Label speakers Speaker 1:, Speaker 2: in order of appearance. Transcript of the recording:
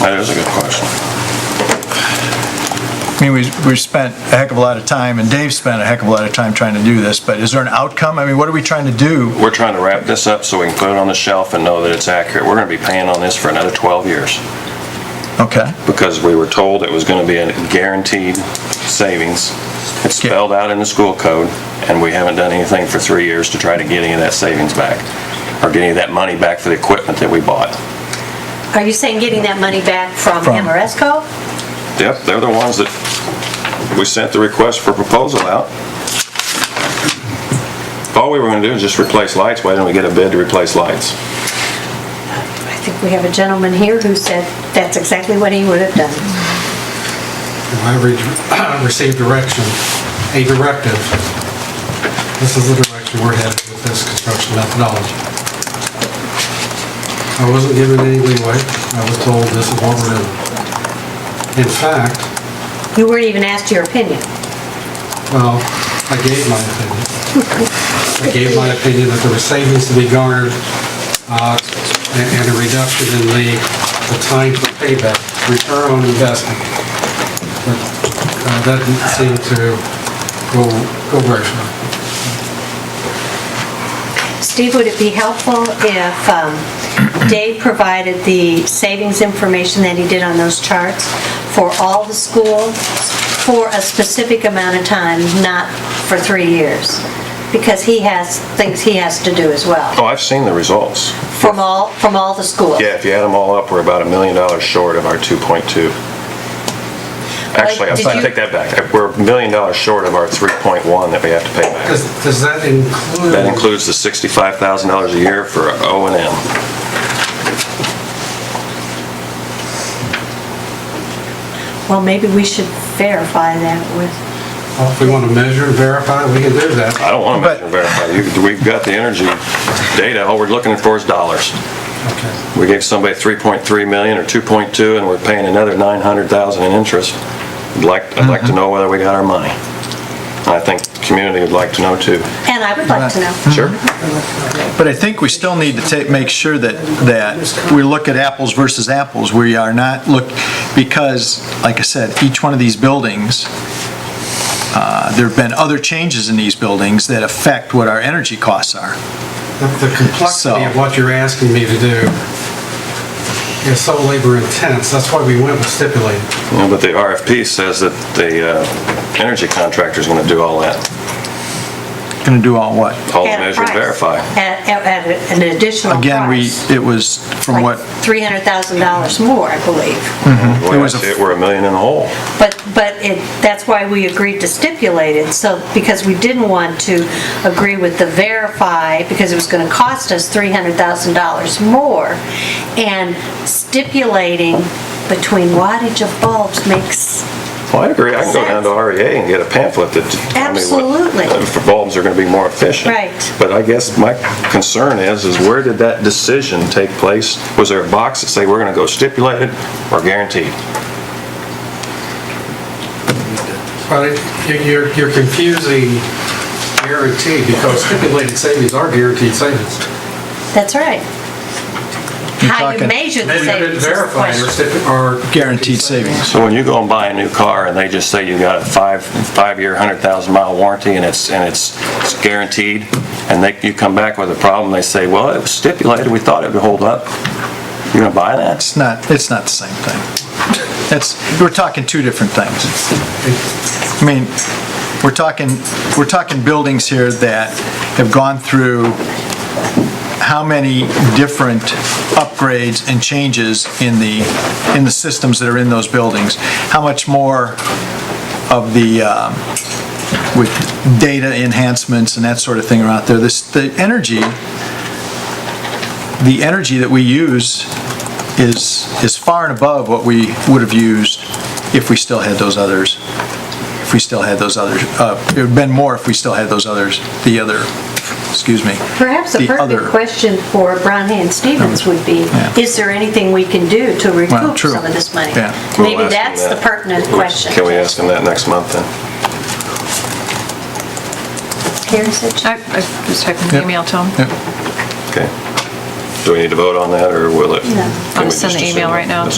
Speaker 1: That is a good question.
Speaker 2: I mean, we, we spent a heck of a lot of time, and Dave spent a heck of a lot of time trying to do this, but is there an outcome? I mean, what are we trying to do?
Speaker 1: We're trying to wrap this up so we can put it on the shelf and know that it's accurate. We're gonna be paying on this for another 12 years
Speaker 2: Okay,
Speaker 1: because we were told it was gonna be a guaranteed savings. It's
Speaker 2: Yeah.
Speaker 1: spelled out in the school code, and we haven't done anything for three years to try to get any of that savings back or get any of that money back for the equipment that we bought.
Speaker 3: Are you saying getting that money back from
Speaker 2: From-
Speaker 3: Amoresco?
Speaker 1: Yep, they're the ones that, we sent the request for proposal out. If All we were gonna do is just replace lights, why didn't we get a bid to replace lights?
Speaker 3: I think we have a gentleman here who said that's exactly what he would have done.
Speaker 4: I re- received direction, a directive. This is the direction we're headed with this construction methodology. I wasn't given any leeway. I was told this is what we're doing. In fact,
Speaker 3: You weren't even asked your opinion.
Speaker 4: well, I gave my opinion. I gave my opinion that there were savings to be garnered uh, and and a reduction in the the time for payback, return on investment. But uh, that didn't seem to go go very far.
Speaker 3: Steve, would it be helpful if um, Dave provided the savings information that he did on those charts for all the schools for a specific amount of time, not for three years? Because he has, things he has to do as well,
Speaker 1: Oh, I've seen the results.
Speaker 3: from all, from all the schools.
Speaker 1: Yeah, if you add them all up, we're about a million dollars short of our 2.2. Actually, I
Speaker 3: Like, did
Speaker 1: I
Speaker 3: you-
Speaker 1: take that back. We're a million dollars short of our 3.1 that we have to pay back.
Speaker 4: Does does that include?
Speaker 1: That includes the $65,000 a year for O and M.
Speaker 3: Well, maybe we should verify that with
Speaker 4: Well, If Oh, we want to measure and verify, we can do that.
Speaker 1: I don't want to
Speaker 2: But-
Speaker 1: measure and verify. You- We've got the energy data. All we're looking for is dollars.
Speaker 4: Okay.
Speaker 1: We gave somebody 3.3 million or 2.2, and we're paying another 900,000 in interest. I'd like, I'd like to
Speaker 3: Mm-hmm.
Speaker 1: know whether we got our money. I think the community would like to know too.
Speaker 3: And I would like to know.
Speaker 1: Sure.
Speaker 2: but I think we still need to take, make sure that, that we look at apples versus apples. We are not, look, because, like I said, each one of these buildings, uh, there've been other changes in these buildings that affect what our energy costs are.
Speaker 4: The the complexity of
Speaker 2: So-
Speaker 4: what you're asking me to do is so labor intense. That's why we went with stipulated.
Speaker 1: You know, But the RFP says that the uh, energy contractor's going to do all that,
Speaker 2: Going to do all what?
Speaker 1: all the
Speaker 3: At a
Speaker 1: measure and
Speaker 3: price.
Speaker 1: verify.
Speaker 3: At, at- at an additional price.
Speaker 2: Again, we, it was from what,
Speaker 3: Like
Speaker 2: Mm-hmm.
Speaker 3: $300,000 more, I believe.
Speaker 1: The way I
Speaker 2: It was a-
Speaker 1: see it, we're a million in the hole.
Speaker 3: But, but it, that's why we agreed to stipulate it, so, because we didn't want to agree with the verify, because it was gonna cost us $300,000 more. And stipulating between wattage of bulbs makes,
Speaker 1: Well, I agree. I can go down to REA and get a pamphlet that tells me
Speaker 3: Absolutely.
Speaker 1: what uh, for bulbs are going to be more efficient.
Speaker 3: Right.
Speaker 1: But I guess my concern is, is where did that decision take place? Was there a box that say we're going to go stipulated or guaranteed?
Speaker 4: But it- you're you're confusing guarantee because stipulated savings are guaranteed savings.
Speaker 3: that's right. How you
Speaker 2: talking-
Speaker 3: measure the
Speaker 4: Measured and
Speaker 3: savings is the
Speaker 4: verified are
Speaker 3: question.
Speaker 4: stipu- are...
Speaker 2: guaranteed savings.
Speaker 1: So when you go and buy a new car and they just say you got a five, five-year, 100,000-mile warranty and it's, and it's it's guaranteed, and they, you come back with a problem, they say, well, it was stipulated, we thought it would hold up. You're going to buy that?
Speaker 2: It's not, it's not the same thing. It's, we're talking two different things. I mean, we're talking, we're talking buildings here that have gone through how many different upgrades and changes in the, in the systems that are in those buildings? How much more of the, um, with data enhancements and that sort of thing are out there? This, the energy, the energy that we use is, is far and above what we would have used if we still had those others, if we still had those others, uh, it would have been more if we still had those others, the other, excuse me.
Speaker 3: Perhaps a
Speaker 2: the
Speaker 3: perfect
Speaker 2: other-
Speaker 3: question for Brown Hand Stevens would be,
Speaker 2: Yeah.
Speaker 3: is there anything we can do to recoup
Speaker 2: true.
Speaker 3: some of this money?
Speaker 2: Yeah.
Speaker 1: We'll
Speaker 3: Maybe
Speaker 1: ask them
Speaker 3: that's the
Speaker 1: that.
Speaker 3: pertinent question.
Speaker 1: Can we ask them that next month then?
Speaker 3: Karen said she-
Speaker 5: I I just typed an
Speaker 2: Yep.
Speaker 5: email to him.
Speaker 2: Yep.
Speaker 1: Okay. Do we need to vote on that, or will it?
Speaker 3: No.
Speaker 1: can
Speaker 5: I'll
Speaker 1: we
Speaker 5: send
Speaker 1: just
Speaker 5: the email
Speaker 1: assume
Speaker 5: right now.
Speaker 1: it's